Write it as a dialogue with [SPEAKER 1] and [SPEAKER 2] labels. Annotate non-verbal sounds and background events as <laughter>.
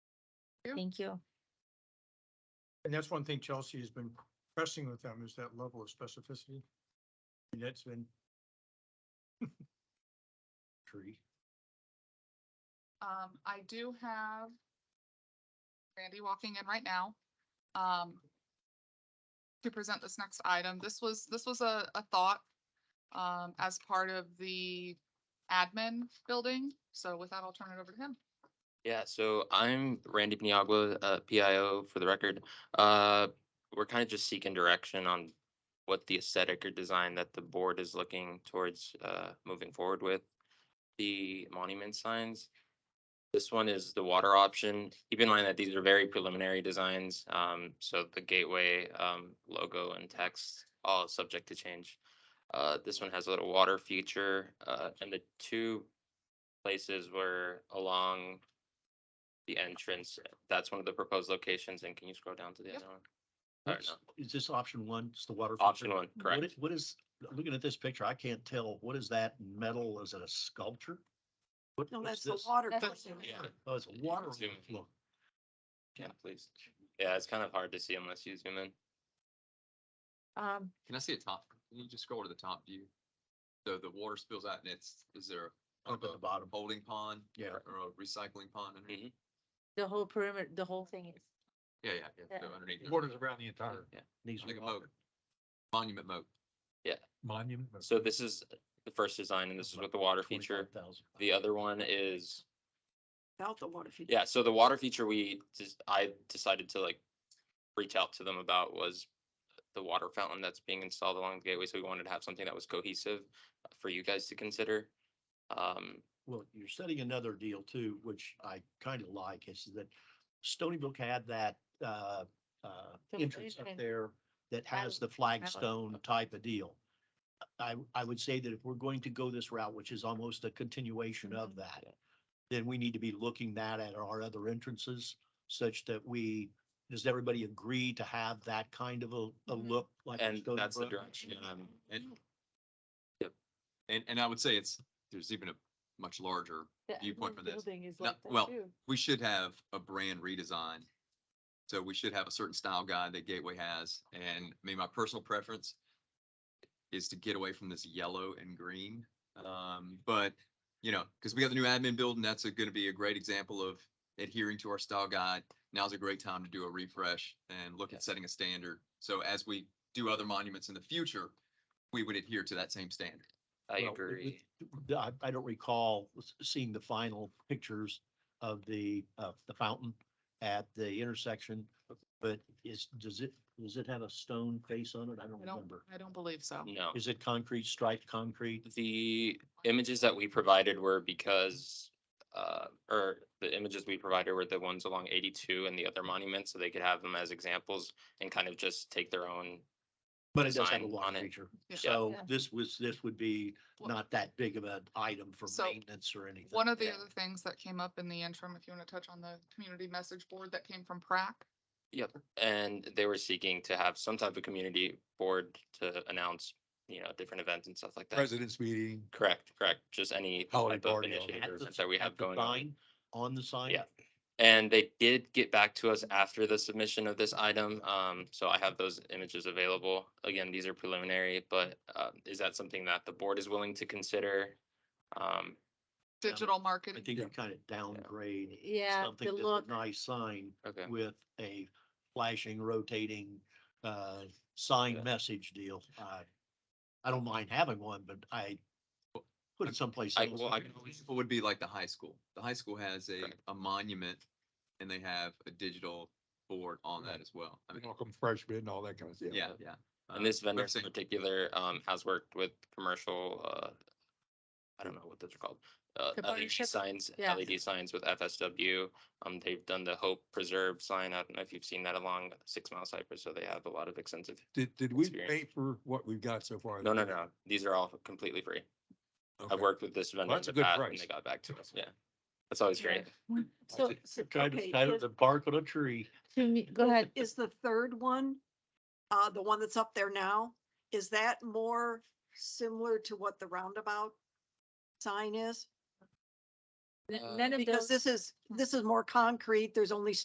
[SPEAKER 1] you.
[SPEAKER 2] Thank you.
[SPEAKER 1] And that's one thing Chelsea has been pressing with them is that level of specificity. And that's been. <laughs> Tree.
[SPEAKER 3] Um, I do have Randy walking in right now. Um, to present this next item. This was, this was a, a thought um, as part of the admin building. So with that, I'll turn it over to him.
[SPEAKER 4] Yeah, so I'm Randy Paniagua, uh, PIO for the record. Uh, we're kind of just seeking direction on what the aesthetic or design that the board is looking towards, uh, moving forward with the monument signs. This one is the water option. Keep in mind that these are very preliminary designs, um, so the gateway, um, logo and text, all subject to change. Uh, this one has a little water feature, uh, and the two places were along the entrance, that's one of the proposed locations, and can you scroll down to the
[SPEAKER 3] Yep.
[SPEAKER 4] other one? Or no?
[SPEAKER 5] Is this option one, It's the water?
[SPEAKER 4] Option
[SPEAKER 5] feature?
[SPEAKER 4] one,
[SPEAKER 5] What
[SPEAKER 4] correct.
[SPEAKER 5] is- What is, looking at this picture, I can't tell, what is that metal, is it a sculpture? What-
[SPEAKER 6] No,
[SPEAKER 5] what's
[SPEAKER 6] that's the
[SPEAKER 5] this?
[SPEAKER 6] water.
[SPEAKER 3] That's-
[SPEAKER 6] question.
[SPEAKER 4] yeah.
[SPEAKER 5] Oh, it's a
[SPEAKER 4] You can
[SPEAKER 5] water
[SPEAKER 4] zoom in.
[SPEAKER 5] overflow.
[SPEAKER 4] Yeah, please. Yeah, it's kind of hard to see unless you zoom in.
[SPEAKER 2] Um,
[SPEAKER 7] Can I see the top? Can you just scroll to the top view? So the water spills out and it's, is there a
[SPEAKER 5] Up at the bottom.
[SPEAKER 7] holding pond?
[SPEAKER 5] Yeah.
[SPEAKER 7] or- Or a recycling pond underneath?
[SPEAKER 2] the whole perimeter, the whole thing is,
[SPEAKER 7] Yeah, yeah, yeah. So
[SPEAKER 2] Yeah.
[SPEAKER 7] underneath. there.
[SPEAKER 1] Borders around the entire
[SPEAKER 5] These
[SPEAKER 7] Like
[SPEAKER 5] are
[SPEAKER 7] a
[SPEAKER 5] water.
[SPEAKER 7] moat. Monument moat.
[SPEAKER 1] monument.
[SPEAKER 4] So this is the first design, and this is with the water feature.
[SPEAKER 5] 25,000.
[SPEAKER 4] The other one is,
[SPEAKER 6] Without the water feature.
[SPEAKER 4] yeah, so the water feature we, just I decided to like reach out to them about was the water fountain that's being installed along the gateway, so we wanted to have something that was cohesive for you guys to consider. Um,
[SPEAKER 5] Well, you're setting another deal too, which I kind of like, is that Stony Brook had that uh, uh,
[SPEAKER 2] The
[SPEAKER 5] entrance up
[SPEAKER 2] entrance.
[SPEAKER 5] there that has
[SPEAKER 2] Flag-
[SPEAKER 5] the flagstone type of deal. I, I would say that if we're going to go this route, which is almost a continuation of that, then we need to be looking that at our other entrances such that we, does everybody agree to have that kind of a, a
[SPEAKER 2] Mhm.
[SPEAKER 5] look? like in
[SPEAKER 4] and
[SPEAKER 5] Stony
[SPEAKER 4] that's the
[SPEAKER 5] Brook?
[SPEAKER 4] direction, um,
[SPEAKER 7] And. And, and I would say it's, there's even a much larger,
[SPEAKER 2] the
[SPEAKER 7] Viewpoint
[SPEAKER 2] whole
[SPEAKER 7] for this.
[SPEAKER 2] Building is
[SPEAKER 7] No,
[SPEAKER 2] like that
[SPEAKER 7] well,
[SPEAKER 2] too.
[SPEAKER 7] we should have a brand redesign. So we should have a certain style guide that Gateway has. And I mean, my personal preference is to get away from this yellow and green. Um, but, you know, because we have the new admin building, that's going to be a great example of adhering to our style guide. Now's a great time to do a refresh and look at setting a standard. So as we do other monuments in the future, we would adhere to that same standard.
[SPEAKER 4] I
[SPEAKER 5] Well, we- we-
[SPEAKER 4] agree.
[SPEAKER 5] the- I, I don't recall s- seeing the final pictures of the, uh, the fountain at the intersection. But is, does it, does it have a stone face on it? I don't
[SPEAKER 3] I don't,
[SPEAKER 5] remember.
[SPEAKER 3] I don't believe so.
[SPEAKER 4] No.
[SPEAKER 5] Is it concrete, striped concrete?
[SPEAKER 4] The images that we provided were because, uh, or the images we provided were the ones along eighty-two and the other monuments, so they could have them as examples and kind of just take their own.
[SPEAKER 5] But it does have a
[SPEAKER 4] Design
[SPEAKER 5] lot
[SPEAKER 4] on it.
[SPEAKER 5] feature.
[SPEAKER 3] Yeah.
[SPEAKER 5] So
[SPEAKER 2] Yeah.
[SPEAKER 5] this was, this would be
[SPEAKER 3] Well-
[SPEAKER 5] not that big of an item for
[SPEAKER 3] So,
[SPEAKER 5] maintenance or anything.
[SPEAKER 3] One of the
[SPEAKER 4] Yeah.
[SPEAKER 3] other things that came up in the interim, if you want to touch on the community message board that came from Prac.
[SPEAKER 4] Yep. And they were seeking to have some type of community board to announce, you know, different events and stuff like that.
[SPEAKER 8] president's meeting.
[SPEAKER 4] Correct, correct. Just any
[SPEAKER 8] Holiday
[SPEAKER 4] type of
[SPEAKER 8] party or-
[SPEAKER 4] initiative
[SPEAKER 5] At
[SPEAKER 4] or
[SPEAKER 5] the-
[SPEAKER 4] event that we
[SPEAKER 5] at
[SPEAKER 4] have
[SPEAKER 5] the
[SPEAKER 4] going on.
[SPEAKER 5] sign, On the sign?
[SPEAKER 4] Yeah. And they did get back to us after the submission of this item, um, so I have those images available. Again, these are preliminary, but, uh, is that something that the board is willing to consider? Um,
[SPEAKER 3] Digital
[SPEAKER 5] I
[SPEAKER 3] marketing,
[SPEAKER 5] think you kind of downgrade.
[SPEAKER 2] Yeah,
[SPEAKER 5] something
[SPEAKER 2] the
[SPEAKER 5] that's a
[SPEAKER 2] look,
[SPEAKER 5] Nice sign
[SPEAKER 4] okay,
[SPEAKER 5] with a flashing, rotating, uh, sign
[SPEAKER 4] Yeah.
[SPEAKER 5] message deal. I, I don't mind having one, but I put it someplace
[SPEAKER 4] I-
[SPEAKER 5] else.
[SPEAKER 4] well, I can
[SPEAKER 7] An example would be like the high school. The high school has a,
[SPEAKER 4] Right.
[SPEAKER 7] a monument and they have a digital board on that
[SPEAKER 8] Right.
[SPEAKER 7] as well. I mean,
[SPEAKER 8] Welcome freshmen and all that kind of stuff.
[SPEAKER 7] yeah, yeah.
[SPEAKER 4] Mhm. and this
[SPEAKER 7] Um, but I'm
[SPEAKER 4] vendor in
[SPEAKER 7] saying-
[SPEAKER 4] particular, um, has worked with commercial, uh, I don't know what those are called, uh,
[SPEAKER 2] The
[SPEAKER 4] LED
[SPEAKER 2] partnership?
[SPEAKER 4] signs,
[SPEAKER 2] Yeah.
[SPEAKER 4] LED signs with FSW. Um, they've done the Hope Preserve sign, I don't know if you've seen that along Six Mile Cypress, so they have a lot of extensive,
[SPEAKER 8] Did, did we
[SPEAKER 4] Experience.
[SPEAKER 8] pay for what we've got so far?
[SPEAKER 4] no, no, no, these are all completely free.
[SPEAKER 8] Okay.
[SPEAKER 4] I've worked with this vendor in
[SPEAKER 8] that's
[SPEAKER 4] the
[SPEAKER 8] a good
[SPEAKER 4] past and
[SPEAKER 8] price.
[SPEAKER 4] they got back to us. Yeah. That's always great.
[SPEAKER 2] so, so- okay, is-
[SPEAKER 5] the bark on a tree.
[SPEAKER 2] to me, go ahead.
[SPEAKER 6] Is the third one, uh, the one that's up there now, is that more similar to what the roundabout sign is?
[SPEAKER 2] N- None of
[SPEAKER 6] Because
[SPEAKER 2] those,
[SPEAKER 6] this is, this is more concrete. There's only